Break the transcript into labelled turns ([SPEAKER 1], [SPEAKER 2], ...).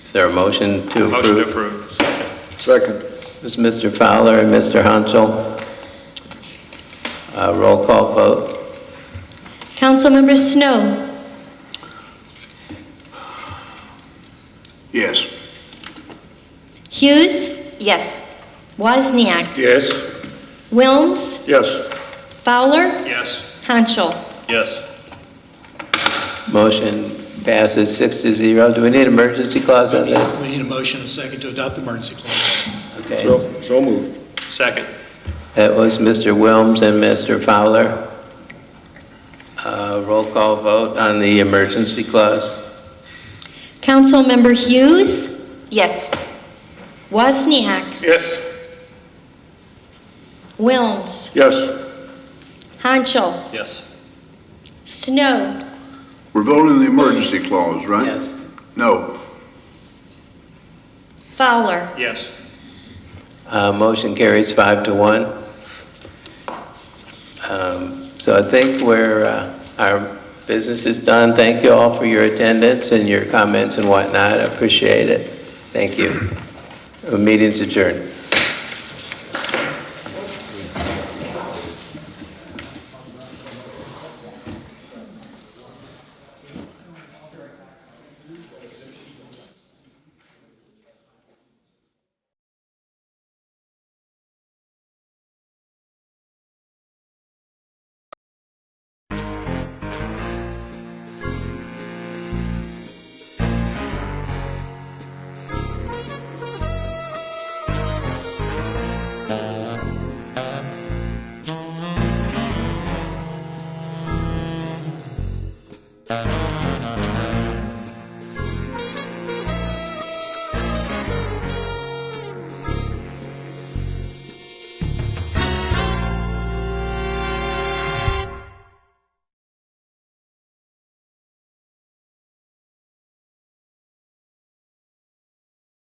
[SPEAKER 1] Is there a motion to
[SPEAKER 2] Motion to
[SPEAKER 1] approve?
[SPEAKER 2] approve.
[SPEAKER 3] Second.
[SPEAKER 1] It's Mr. Fowler and Mr. Hansel. Uh, Roll call vote.
[SPEAKER 4] Councilmember Snow,
[SPEAKER 3] Yes.
[SPEAKER 4] Hughes,
[SPEAKER 5] Yes.
[SPEAKER 4] Wozniak,
[SPEAKER 3] Yes.
[SPEAKER 4] Wilms,
[SPEAKER 3] Yes.
[SPEAKER 4] Fowler,
[SPEAKER 2] Yes.
[SPEAKER 4] Hanschel.
[SPEAKER 2] Yes.
[SPEAKER 1] Motion passes six to zero. Do we need emergency clause on this?
[SPEAKER 6] We need a motion and a second to adopt the emergency clause.
[SPEAKER 1] Okay.
[SPEAKER 3] So so moved.
[SPEAKER 2] Second.
[SPEAKER 1] That was Mr. Wilms and Mr. Fowler. Uh, Roll call vote on the emergency clause.
[SPEAKER 4] Councilmember Hughes,
[SPEAKER 5] Yes.
[SPEAKER 4] Wozniak,
[SPEAKER 2] Yes.
[SPEAKER 4] Wilms,
[SPEAKER 3] Yes.
[SPEAKER 4] Hanschel,
[SPEAKER 2] Yes.
[SPEAKER 4] Snow,
[SPEAKER 7] We're voting the emergency clause, right?
[SPEAKER 1] Yes.
[SPEAKER 7] No.
[SPEAKER 4] Fowler.
[SPEAKER 2] Yes.
[SPEAKER 1] Uh, Motion carries five to one. Um, So I think we're, uh, our business is done. Thank you all for your attendance and your comments and whatnot. I appreciate it. Thank you. The Meeting's adjourned.